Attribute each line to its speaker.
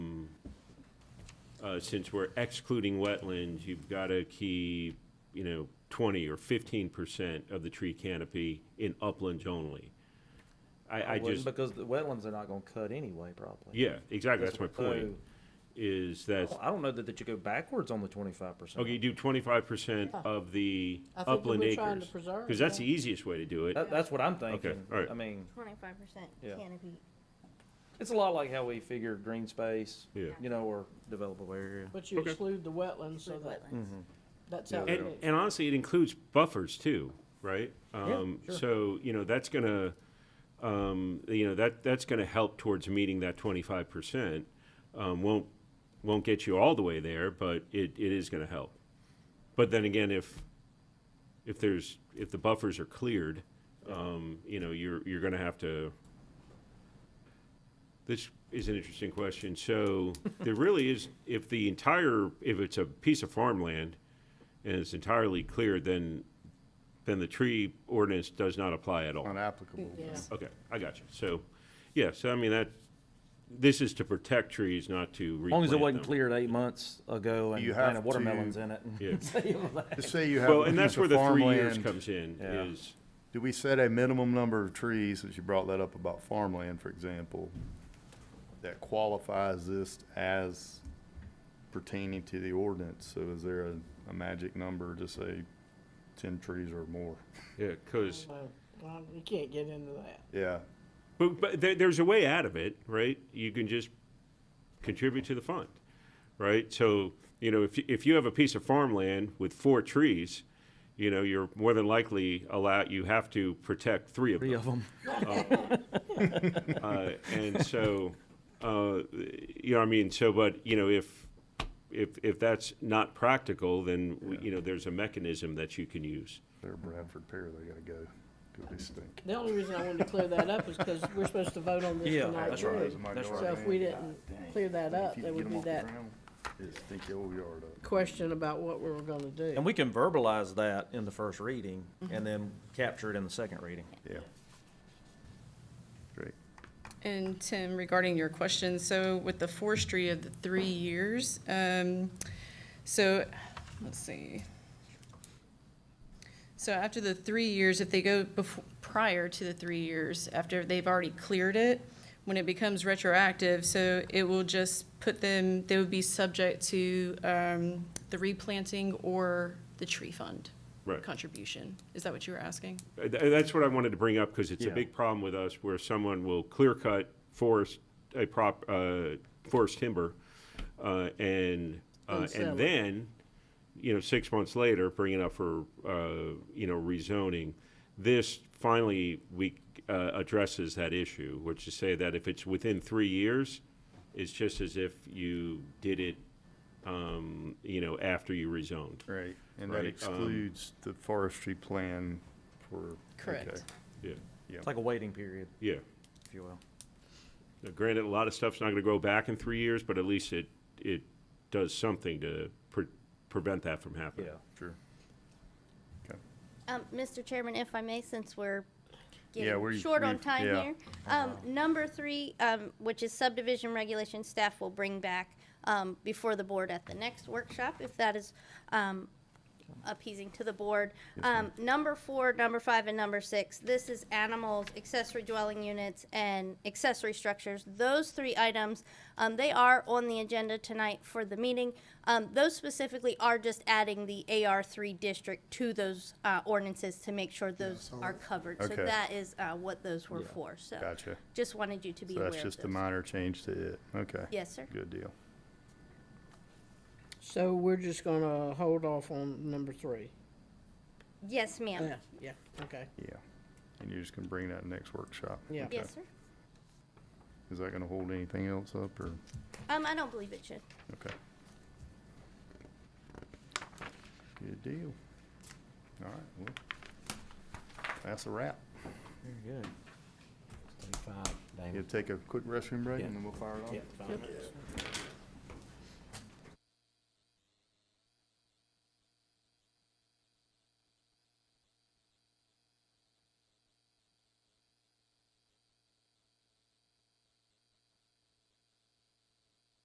Speaker 1: uh, since we're excluding wetlands, you've got to keep, you know, 20 or 15% of the tree canopy in uplands only. I, I
Speaker 2: wouldn't
Speaker 1: just,
Speaker 2: Because the wetlands are not gonna cut anyway, probably.
Speaker 1: yeah, exactly, that's my
Speaker 2: So,
Speaker 1: point, is that,
Speaker 2: I don't know that, that you go backwards on the twenty-five percent.
Speaker 1: okay, you do 25%
Speaker 3: Yeah.
Speaker 1: of the
Speaker 3: I think that
Speaker 1: upland
Speaker 3: we're trying to
Speaker 1: acres.
Speaker 3: preserve,
Speaker 1: Because that's the
Speaker 3: yeah.
Speaker 1: easiest way to do it.
Speaker 2: That, that's what I'm thinking.
Speaker 1: all right.
Speaker 2: I mean,
Speaker 4: Twenty-five percent
Speaker 2: Yeah.
Speaker 4: canopy.
Speaker 2: it's a lot like how we figure green space,
Speaker 1: Yeah.
Speaker 2: you know, or developable area.
Speaker 3: But you
Speaker 1: Okay.
Speaker 3: exclude the wetlands, so
Speaker 4: Like
Speaker 3: that,
Speaker 4: wetlands.
Speaker 5: Mm-hmm.
Speaker 3: that's how.
Speaker 1: And, and honestly, it includes buffers too, right? Um,
Speaker 2: sure.
Speaker 1: So, you know, that's gonna, um, you know, that, that's gonna help towards meeting that twenty-five percent. Um, won't, won't get you all the way there, but it, it is gonna help. But then again, if, if there's, if the buffers are cleared, um, you know, you're, you're gonna have to. This is an interesting question. So there really is, if the entire, if it's a piece of farmland, and it's entirely clear, then, then the tree ordinance does not apply at all.
Speaker 5: unapplicable.
Speaker 3: Yeah.
Speaker 1: Okay, I got you. So, yeah, so I mean, that, this is to protect trees, not to
Speaker 2: As long
Speaker 1: replant
Speaker 2: as
Speaker 1: them.
Speaker 2: it wasn't cleared eight months ago and
Speaker 5: You
Speaker 2: planted
Speaker 5: have
Speaker 2: watermelons
Speaker 5: to-
Speaker 2: in it.
Speaker 1: Yeah.
Speaker 5: To say you have
Speaker 1: Well,
Speaker 5: a
Speaker 1: and that's
Speaker 5: piece
Speaker 1: where
Speaker 5: of
Speaker 1: the three years
Speaker 5: farmland,
Speaker 1: comes in,
Speaker 2: Yeah.
Speaker 1: is,
Speaker 5: do we set a minimum number of trees, since you brought that up about farmland, for example, that qualifies this as pertaining to the ordinance? So is there a, a magic number to say ten trees or more?
Speaker 1: yeah, because,
Speaker 3: Well, well, You can't get into that.
Speaker 5: Yeah,
Speaker 1: but, but there, there's a way out of it, right? You can just contribute to the fund, right? So, you know, if, you- if you have a piece of farmland with four trees, you know, you're more than likely allow, you have to protect three of them.
Speaker 2: Three of them.
Speaker 1: Uh, and so, uh, you know, I mean, so, but, you know, if, if, if that's not practical, then, we- you know, there's a mechanism that you can use.
Speaker 5: they're Bradford pear, they gotta go, 'cause they stink.
Speaker 3: The only reason I wanted to clear that up is because we're supposed to vote on this
Speaker 2: Yeah,
Speaker 3: tonight
Speaker 2: that's right.
Speaker 3: too. So if we didn't clear that up, there would be that
Speaker 5: It stink your whole yard up.
Speaker 3: question about what we were gonna do.
Speaker 2: And we can verbalize that in the first reading and then capture it in the second reading.
Speaker 5: Yeah. Great.
Speaker 6: And Tim, regarding your question, so with the forestry of the three years, um, so, let's see. So after the three years, if they go before, prior to the three years, after they've already cleared it, when it becomes retroactive, so it will just put them, they would be subject to, um, the replanting or the tree fund
Speaker 1: Right.
Speaker 6: contribution. Is that what you were asking?
Speaker 1: Uh, th- That's what I wanted to bring up, because it's a
Speaker 2: Yeah.
Speaker 1: big problem with us, where someone will clear cut forest, a prop, uh, forest timber, uh, and, uh,
Speaker 3: And sell it.
Speaker 1: and then, you know, six months later, bring it up for, uh, you know, rezoning. This finally, we, uh, addresses that issue, which is say that if it's within three years, it's just as if you did it, um, you know, after you rezoned.
Speaker 5: Right, and that
Speaker 1: Right, um,
Speaker 5: excludes the forestry plan for.
Speaker 6: Correct.
Speaker 1: Yeah,
Speaker 2: It's like a waiting period,
Speaker 1: yeah.
Speaker 2: if you will.
Speaker 1: Now, Granted, a lot of stuff's not gonna grow back in three years, but at least it, it does something to pre- prevent that from happening.
Speaker 2: Yeah.
Speaker 5: Sure. Okay.
Speaker 4: Um, Mr. Chairman, if I may, since we're
Speaker 5: Yeah,
Speaker 4: getting
Speaker 5: we're-
Speaker 4: short on
Speaker 5: we've-
Speaker 4: time
Speaker 5: yeah.
Speaker 4: here. Um, number three, um, which is subdivision regulation, staff will bring back, um, before the board at the next workshop, if that is, um, appeasing to the board. Um, number four, number five, and number six, this is animals, accessory dwelling units, and accessory structures. Those three items, um, they are on the agenda tonight for the meeting. Um, those specifically are just adding the AR three district to those, uh, ordinances to make sure those are covered. So
Speaker 5: Okay.
Speaker 4: that is, uh, what those were for, so.
Speaker 5: Gotcha.
Speaker 4: Just wanted you to be
Speaker 5: So
Speaker 4: aware of
Speaker 5: that's just a
Speaker 4: those.
Speaker 5: minor change to it, okay.
Speaker 4: Yes, sir.
Speaker 5: Good deal.
Speaker 3: So we're just gonna hold off on number three.
Speaker 4: Yes, ma'am.
Speaker 3: Yeah, yeah, okay.
Speaker 5: Yeah. And you're just gonna bring that next workshop?
Speaker 3: Yeah.
Speaker 5: Okay.
Speaker 4: Yes, sir.
Speaker 5: Is that gonna hold anything else up, or,
Speaker 4: Um, I don't believe it should.
Speaker 5: okay? Good deal. All right, well, that's a wrap.
Speaker 2: Very good. Twenty-five, Damon.
Speaker 5: You'll take a quick restroom break, and then we'll fire it off?
Speaker 2: Yeah, fine.